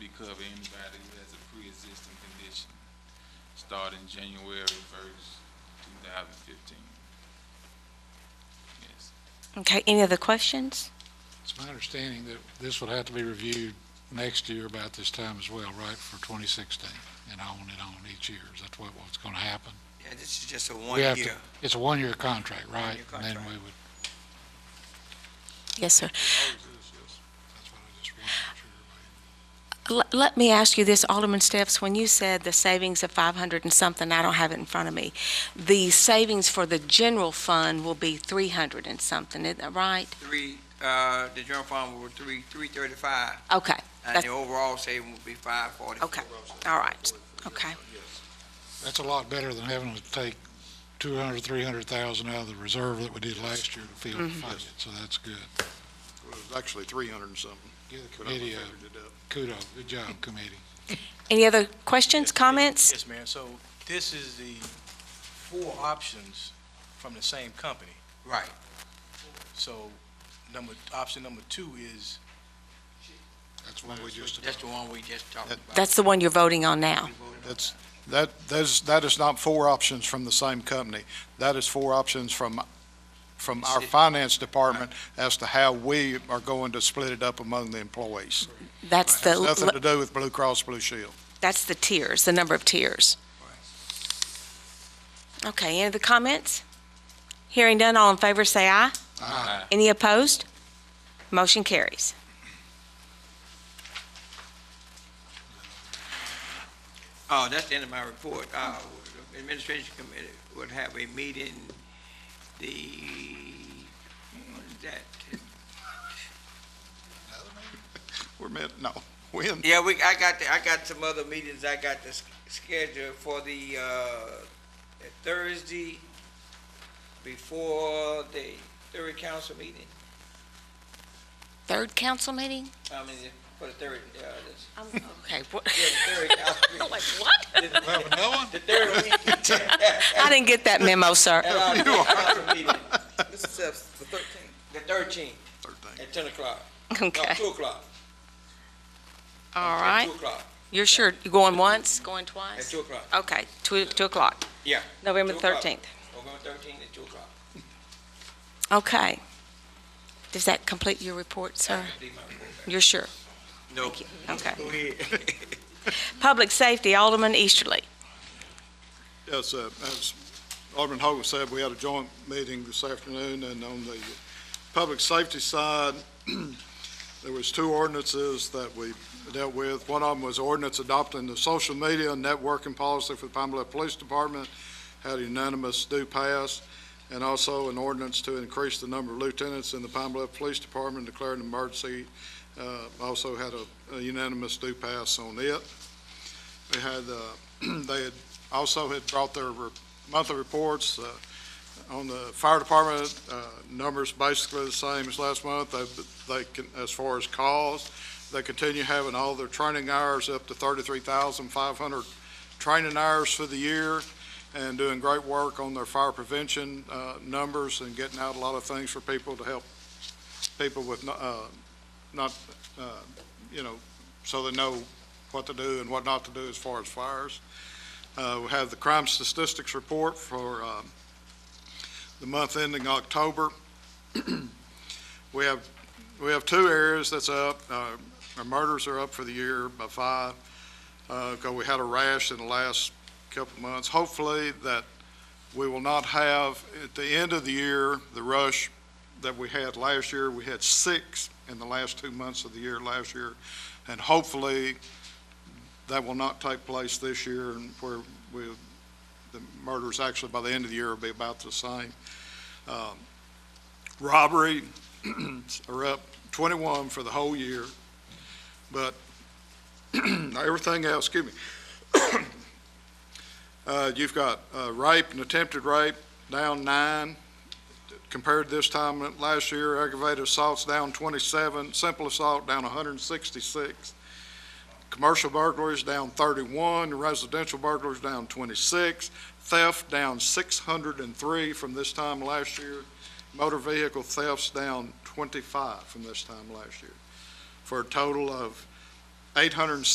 cover anybody who has a pre-existing condition, starting January first, two thousand fifteen. Yes. Okay, any other questions? It's my understanding that this would have to be reviewed next year about this time as well, right, for 2016, and on and on each year. Is that what, what's going to happen? Yeah, this is just a We have to- one-year. It's a one-year contract, right? One-year And then contract. we would, Yes, sir. that's what I just wanted to make sure everybody- L- Let me ask you this, Alderman Steps, when you said the savings of 500 and something, I don't have it in front of me. The savings for the general fund will be 300 and something, isn't that right? Three, uh, the general fund will be three, three thirty-five, Okay, and the overall saving will be five forty-four. okay, all right, okay. That's a lot better than having to take 200, 300,000 out of the reserve that we did last year to fill the budget, so that's good. Well, It was actually three hundred and something. Give the but I committee figured a it up. kudos, good job, committee. Any other questions, comments? Yes, ma'am. So this is the four options from the same company. Right, So number, option number two is, That's one we just, that's the one we just talked about. That's the one you're voting on now. We voted on That's, that, that is, that is not four options from the same company. That is four options from, from our finance department as to how we are going to split it up among the employees. That's It has nothing the, to do with Blue Cross Blue Shield. that's the tiers, the number of tiers. Okay, any other comments? Hearing none, all in favor, say aye. Aye. Any opposed? Motion carries. Oh, that's the end of my report. Uh, the Administration Committee would have a meeting the, what is that? We're meant, no, when? Yeah, we, I got, the- I got some other meetings I got to sch- schedule for the, uh, Thursday before the third council meeting. Third council meeting? I mean, for the third, uh, this, Okay, what? yeah, the third council meeting. Like, what? The third week. I didn't get that memo, sir. At our council meeting, Mr. Steps, uh, the thirteenth. the thirteenth, Thirteen. at ten o'clock. No, Okay, two o'clock. all At right. Two o'clock, You're sure, you going once, going at twice? two o'clock. Okay, two, two o'clock. Yeah. November Two o'clock. thirteenth. November thirteenth at two o'clock. Okay. Does that complete your report, sir? Leave my report back. You're sure? No. Okay. Go ahead. Public safety, Alderman Easterly. Yes, uh, as Alderman Hogan said, we had a joint meeting this afternoon, and on the public safety side, there was two ordinances that we dealt with. One of them was ordinance adopting the social media and networking policy for the Pine Bluff Police Department, had unanimous do pass, and also an ordinance to increase the number of lieutenants in the Pine Bluff Police Department, declaring an emergency, uh, also had a- a unanimous do pass on it. They had, uh, they had also had brought their re- monthly reports uh, on the fire department, uh, numbers basically the same as last month. They- They, can- as far as calls, they continue having all their training hours up to 33,500 training hours for the year and doing great work on their fire prevention uh, numbers and getting out a lot of things for people to help people with, no- uh, not, uh, you know, so they know what to do and what not to do as far as fires. Uh, We have the crime statistics report for um, the month ending October. We have, we have two areas that's up. Uh, Our murders are up for the year by five, because we had a rash in the last couple of months. Hopefully that we will not have, at the end of the year, the rush that we had last year. We had six in the last two months of the year last year, and hopefully that will not take place this year, and where we, the murders actually by the end of the year will be about the same. Um, Robbery are up 21 for the whole year, but everything else, excuse me. Uh, You've got uh, rape and attempted rape down nine compared to this time last year. Aggravated assaults down 27, simple assault down 166. Commercial burglaries down 31, residential burglaries down 26, theft down 603 from this time last year, motor vehicle thefts down 25 from this time last year, for a total of 860.